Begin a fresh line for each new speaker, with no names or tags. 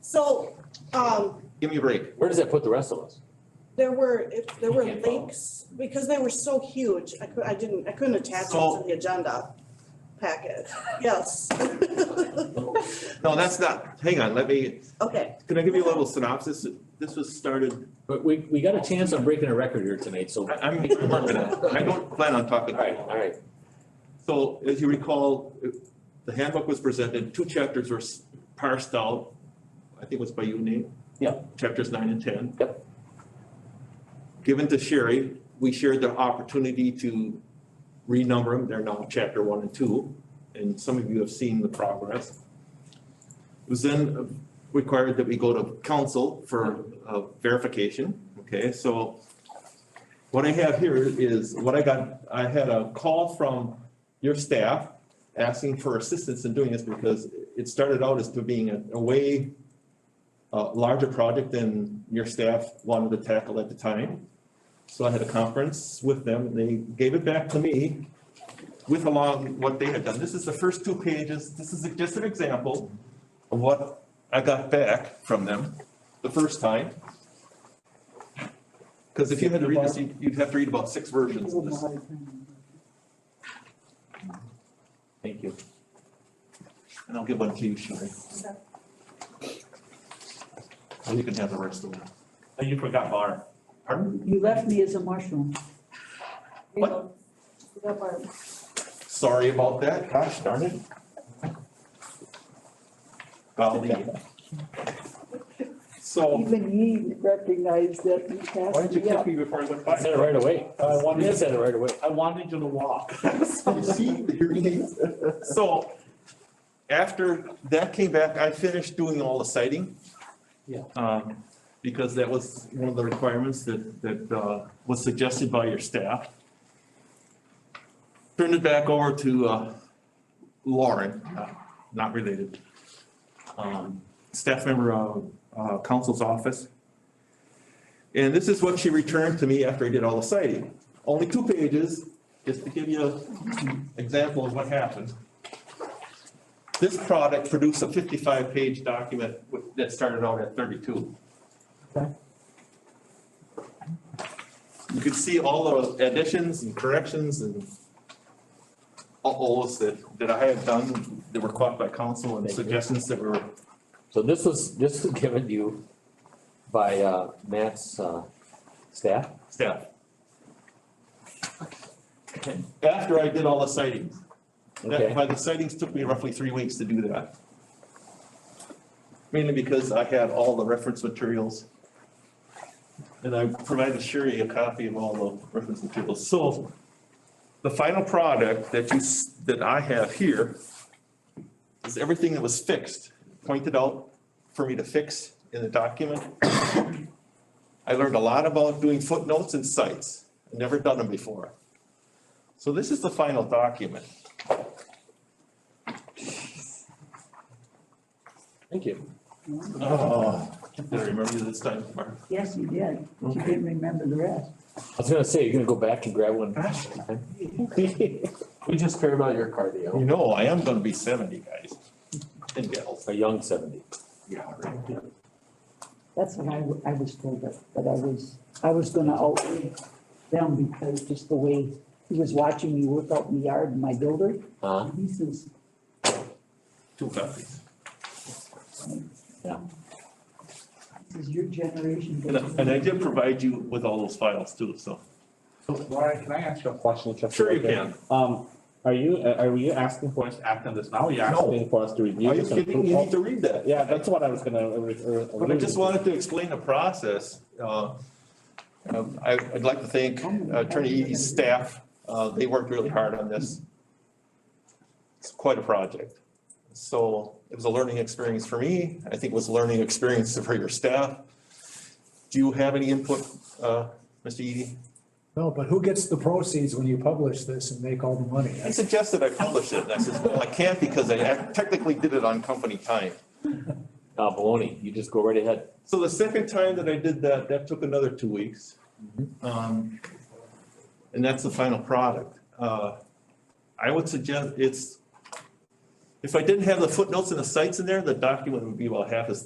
So, um,
Give me a break.
Where does that put the rest of us?
there were, if, there were
You can't follow.
links, because they were so huge, I could, I didn't, I couldn't attach them
So-
to the agenda packet, yes.
No, that's not, hang on, let me,
Okay,
can I give you a little synopsis? This was started,
But we, we got a chance on breaking a record here tonight, so.
I, I'm working on it. I don't plan on talking.
All right, all right.
So as you recall, the handbook was presented, two chapters were s- parsed out. I think it was by you, Nate?
Yep.
Chapters nine and ten.
Yep.
Given to Sherry, we shared the opportunity to renumber them. They're now chapter one and two, and some of you have seen the progress. It was then uh, required that we go to council for uh, verification, okay? So what I have here is what I got, I had a call from your staff asking for assistance in doing this because it started out as to being a, a way uh, larger project than your staff wanted to tackle at the time. So I had a conference with them, and they gave it back to me with along what they had done. This is the first two pages, this is just an example of what I got back from them the first time. Because if you had to read this, you'd you'd have to read about six versions of this.
Thank you.
And I'll give one to you, Sherry. And you can have the rest of them. And you forgot Barb. Pardon?
You left me as a mushroom.
What? Sorry about that. Gosh darn it. Golly. So,
Even he recognized that he
why didn't
passed
you
me
kick
up.
me before I went
Uh, I said it
by?
right away.
I wanted-
You said it right away.
I wanted you to walk.
See, here it is. So, after that came back, I finished doing all the citing.
Yeah.
Um, because that was one of the requirements that, that, uh, was suggested by your staff. Turn it back over to, uh, Lauren, uh, not related. Um, staff member of, uh, council's office. And this is what she returned to me after I did all the citing. Only two pages, just to give you an example of what happened. This product produced a fifty-five page document with- that started out at thirty-two. You could see all the additions and corrections and uh-ohs that, that I had done that were caught by council and suggestions that were,
So this was, this was given to you by, uh, Matt's, uh, staff?
staff. After I did all the sightings. That,
Okay.
by the sightings took me roughly three weeks to do that. Mainly because I had all the reference materials. And I provided Sherry a copy of all the reference materials. So the final product that you, s- that I have here is everything that was fixed, pointed out for me to fix in the document. I learned a lot about doing footnotes and sites. I've Never done them before. So this is the final document.
Thank you.
Oh, did I remember you this time, Mark?
Yes, you did. but You didn't remember the rest.
I was gonna say, you're gonna go back and grab one.
Gosh,
We just care about your cardio.
you know, I am gonna be seventy, guys. And gals.
A young seventy.
Yeah, right.
That's what I, w- I was told that, that I was, I was gonna outlive them because just the way he was watching me work out in the yard in my builder.
Huh?
He says,
Two copies.
he says, your generation.
And I,
doesn't
and I did provide you with all those files too, so.
So Lauren, can I ask you a question? just
Sure you
real quick?
can.
Um, are you, uh, are you asking for us to act on this now? or You're
No.
asking for us to review
Are you
this? and
kidding?
approve
You
all-
need to read that.
Yeah, that's what I was gonna. uh, re- uh,
But I just wanted to explain the process. Uh, um, I, I'd like to thank uh, Attorney Eady's staff. Uh, They worked really hard on this. It's quite a project. So it was a learning experience for me. I think it was a learning experience for your staff. Do you have any input, uh, Mr. Eady?
No, but who gets the proceeds when you publish this and make all the money?
He suggested I publish it, and I said, well, I can't because I technically did it on company time.
Uh, baloney, you just go right ahead.
So the second time that I did that, that took another two weeks. Um, And that's the final product. Uh, I would suggest it's, if I didn't have the footnotes and the sites in there, the document would be about half as